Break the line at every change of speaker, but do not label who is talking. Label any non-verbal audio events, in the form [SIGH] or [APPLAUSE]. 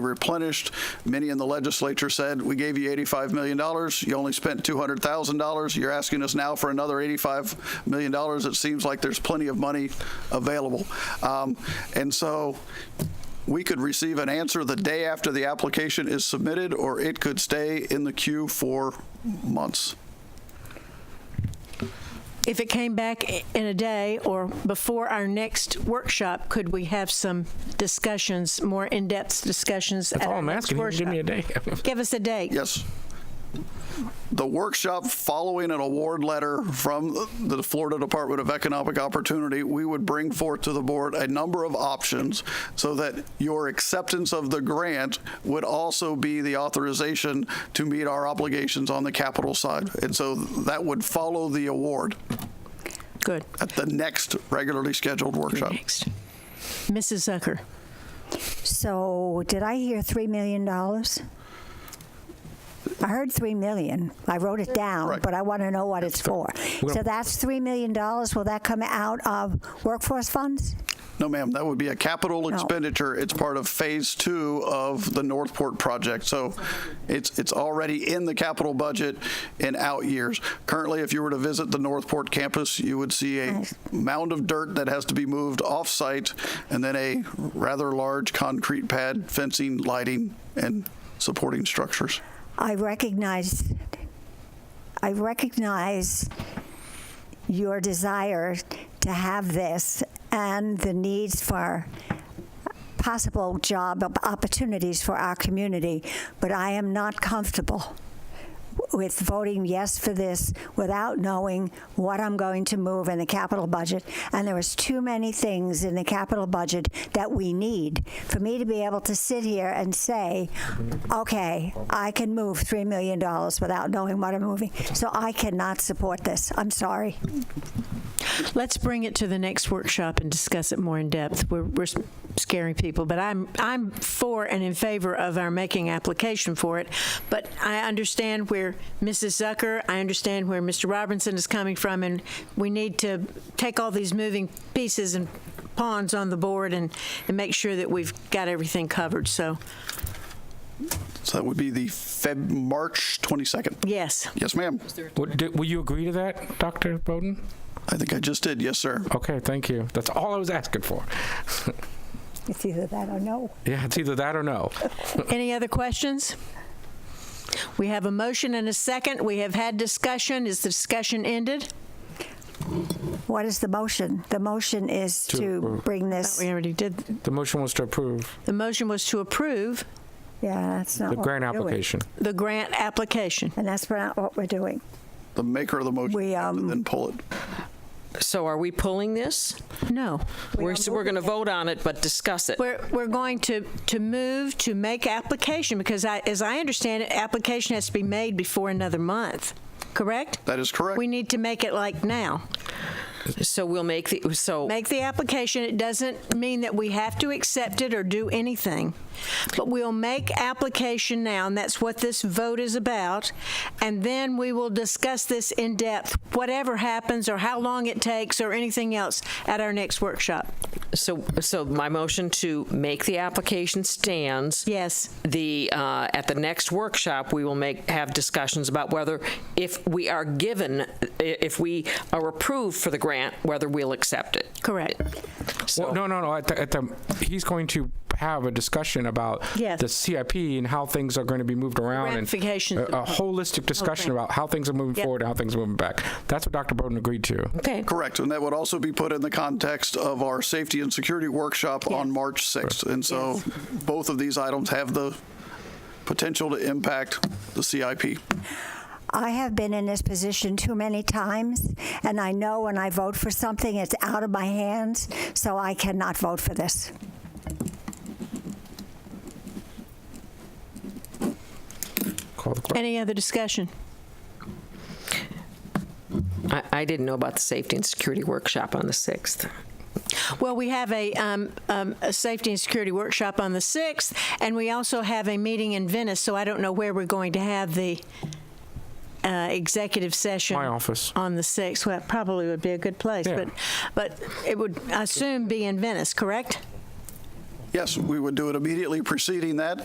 replenished. Many in the legislature said, "We gave you $85 million. You only spent $200,000. You're asking us now for another $85 million. It seems like there's plenty of money available." Um, And so we could receive an answer the day after the application is submitted, or it could stay in the queue for months.
If it came back i- in a day or before our next workshop, could we have some discussions, more in-depth discussions?
That's all I'm asking. you. Give me a day. [LAUGHS]
Give us a date.
Yes. The workshop following an award letter from the Florida Department of Economic Opportunity, we would bring forth to the board a number of options so that your acceptance of the grant would also be the authorization to meet our obligations on the capital side. And so that would follow the award
Good.
at the next regularly scheduled workshop.
Next. Mrs. Zucker,
So, did I hear $3 million? I heard 3 million. I wrote it down,
Right.
but I want to know what it's for. So that's $3 million. Will that come out of workforce funds?
No, ma'am, that would be a capital expenditure. It's part of phase two of the Northport project. So it's, it's already in the capital budget in out years. Currently, if you were to visit the Northport campus, you would see a mound of dirt that has to be moved off-site and then a rather large concrete pad, fencing, lighting, and supporting structures.
I recognize, I recognize your desire to have this and the needs for possible job op- opportunities for our community, but I am not comfortable with voting yes for this without knowing what I'm going to move in the capital budget. And there is too many things in the capital budget that we need for me to be able to sit here and say, okay, I can move $3 million without knowing what I'm moving. So I cannot support this. I'm sorry.
let's bring it to the next workshop and discuss it more in depth. We're, we're s- scaring people, but I'm, I'm for and in favor of our making application for it. But I understand where Mrs. Zucker, I understand where Mr. Robinson is coming from, and we need to take all these moving pieces and pawns on the board and, and make sure that we've got everything covered. So,
So that would be the Feb, March 22nd.
yes.
Yes, ma'am.
Would, do, will you agree to that, Doctor Bowden?
I think I just did. Yes, sir.
Okay, thank you. That's all I was asking for.
It's either that or no.
Yeah, it's either that or no.
Any other questions? We have a motion and a second. We have had discussion. Is the discussion ended?
What is the motion? The motion is
To
to
approve.
bring this,
We already did.
The motion was to approve
The motion was to approve
yeah, that's not
the
what we're
grant
doing.
application.
the grant application.
And that's not what we're doing.
The maker of the motion,
We, um,
then pull it.
So are we pulling this?
No.
We're, so we're going to vote on it, but discuss it.
We're, we're going to, to move to make application because I, as I understand it, application has to be made before another month, correct?
That is correct.
We need to make it like now.
So we'll make the, so,
Make the application. It doesn't mean that we have to accept it or do anything. But we'll make application now, and that's what this vote is about. And then we will discuss this in depth, whatever happens or how long it takes or anything else at our next workshop.
so, so my motion to make the application stands.
Yes.
The, uh, at the next workshop, we will make, have discussions about whether, if we are given, i- if we are approved for the grant, whether we'll accept it.
Correct.
Well, no, no, no. At the, at the, he's going to have a discussion about
Yes.
the CIP and how things are going to be moved around
Ramifications
and
of-
a, a holistic discussion
Okay.
about how things are moving
Yep.
forward and how things are moving back. That's what Dr. Bowden agreed to.
Okay.
Correct, and that would also be put in the context of our safety and security workshop on March 6th. And so both of these items have the potential to impact the CIP.
I have been in this position too many times, and I know when I vote for something, it's out of my hands, so I cannot vote for this.
Call the clerk.
Any other discussion?
I, I didn't know about the safety and security workshop on the 6th.
Well, we have a, um, um, a safety and security workshop on the 6th, and we also have a meeting in Venice, so I don't know where we're going to have the uh, executive session.
My office.
On the 6th, well, it probably would be a good place,
Yeah.
but, but it would, I assume, be in Venice, correct?
Yes, we would do it immediately preceding that,